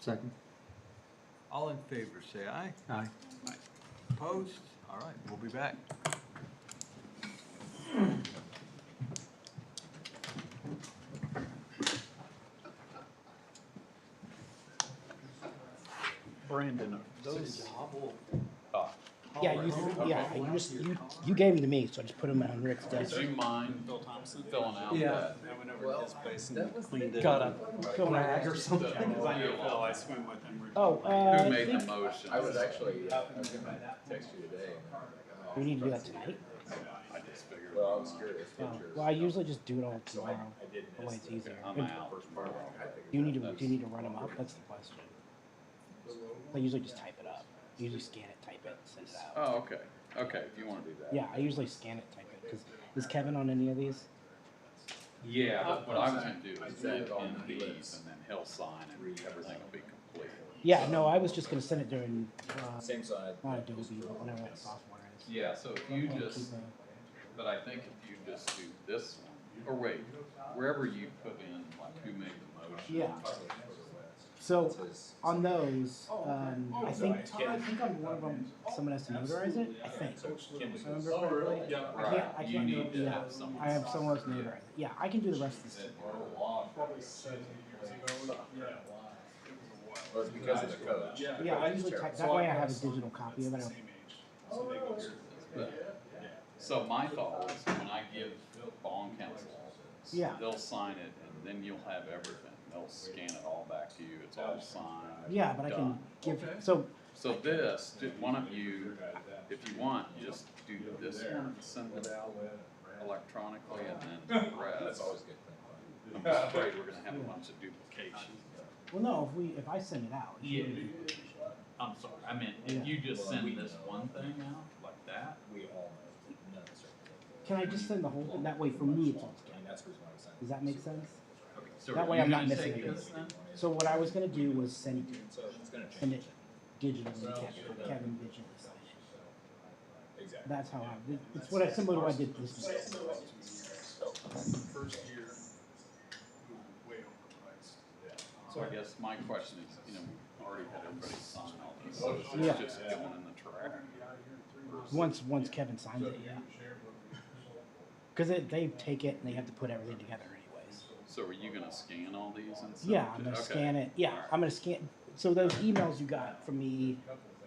Second. All in favor, say aye. Aye. Opposed? All right, we'll be back. Brandon. Yeah, you, yeah, you just, you, you gave them to me, so I just put them on Rick's desk. Do you mind filling out Yeah. that? I went over to his place and cleaned it Got up. a film rack or something. the- Cause I knew Phil, I swim with him. Oh, Who uh, I made the think motion? I was actually, I was gonna text you today. we need to do that tonight. Well, I was curious. Oh, Well, I usually just do it all tomorrow. That way it's easier. I'm And out. Do you need to, do you need to run them up? That's the question. I usually just type it up. Usually scan it, type it, send it out. Oh, okay, okay, if you wanna do that. Yeah, I usually scan it, type it, cause is Kevin on any of these? Yeah, but what I was gonna do I is said send it all him night. these and then he'll sign and everything will be complete. Yeah, no, I was just gonna send it during, uh, Same side. not Adobe, but whatever that software is. Yeah, so if you Keep just, a- but I think if you just do this one, or wait, wherever you put in, like, who made the motion? Yeah. So on those, um, I think I think on one of them, someone has to notarize it. I think. If I remember correctly. I can't. I Right, you can't do need it. to Yeah, have someone. I have sign someone else it. notarize it. Yeah, I can do the rest of this. Well, it's because of the code. Yeah, I usually type, that way I have a digital copy of it. I'll- But- So my thought was, when I give bond counsel, Yeah. they'll sign it, and then you'll have everything, they'll scan it all back to you, it's all signed. Yeah, but I can done. give. So So this, do- one of you, if you want, just do this one, and send it out electronically, and then the That's rest. always a good thing. I'm just afraid we're gonna have a bunch of duplication. well, no, if we if I send it out. it Yeah, should be- I'm sorry, I meant, Yeah. if you just send this one thing out, like that, We all know, none of us are. Can I just send the whole thing? That way for me it's all I mean, together. that's the reason why I signed. Does that make sense? okay, so That are way you I'm not gonna missing take anything. this then? So what I was gonna do was send So it's gonna send change. it digitally to Kevin, Kevin digitally. sign it. Exactly. That's how I. It's what I similar to what I did this week. First year, we were way overpriced. So I guess my question is, you know, we've already had everybody sign all these, so is Yeah. this just going in the trash? Once once Kevin signs it, yeah. Because they take it and they have to put everything together anyways. So are you gonna scan all these and stuff? Yeah, I'm gonna scan it. Yeah, I'm gonna scan. So those emails you got from me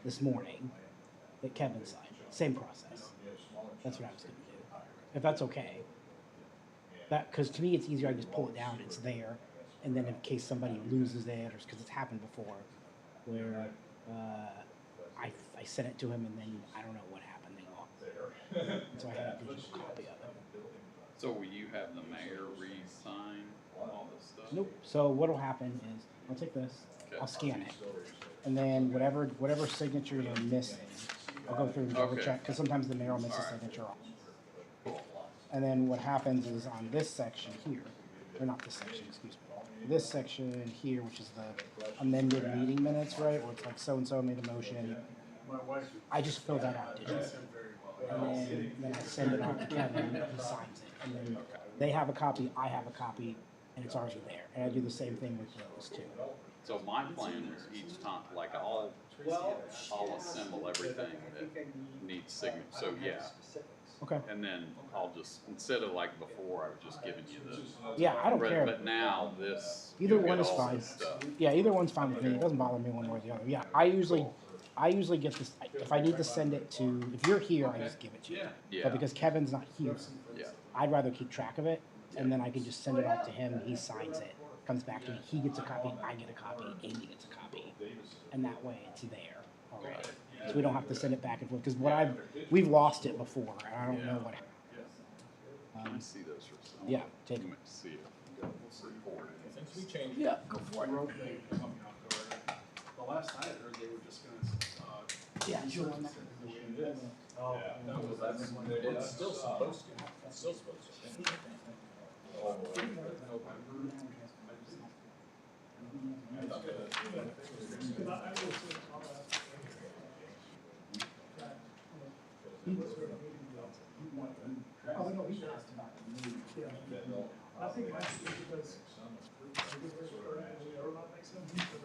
this morning that Kevin signed, same process. That's what I was gonna do. If that's okay. That because to me it's easier. I just pull it down. It's there, and then in case somebody loses it, or because it's happened before, where uh, I I sent it to him and then I don't know what happened. They lost. it. So I had a digital copy of it. So will you have the mayor re-sign all this stuff? Nope. So what'll happen is I'll take this, I'll scan it, and then whatever whatever signatures are missing, I'll go through and double Okay. check because sometimes the mayor will miss a Alright. signature off. And then what happens is on this section here, or not this section, excuse me, this section here, which is the amended meeting minutes, right, where it's like so and so made a motion. I just fill that out digitally. And then, then I send it off to Kevin, and he signs it, and then they have a copy, I have a copy, and it's already there. And I do the same thing with those two. So my plan was each time, like I'll, I'll assemble everything that needs signature, so yeah. Okay. And then I'll just, instead of like before, I was just giving you this. Yeah, I don't care. But now this, Either you'll one get is all fine. this stuff. Yeah, either one's fine with me. It doesn't bother me one way or the other. Yeah, I usually, I usually get this. If I need to send it to, if you're here, I just give it to you. Yeah, But because Kevin's not here, yeah. I'd rather keep track of it, and then I can just send it off to him. He signs it, comes back to me. He gets a copy. I get a copy. Amy gets a copy, and that way it's there already. So we don't have to send it back and forth. Because what I've, we've lost it before, and I don't know what. happened. Can I see those results? Um, Yeah, take You might see it. Recorded. Since we changed. Yeah, go for The last I had heard, they were just gonna, uh, Yeah. Oh. That was, that's when they did. It's still supposed to, it's still supposed to. Oh, no, he asked about the I think that's because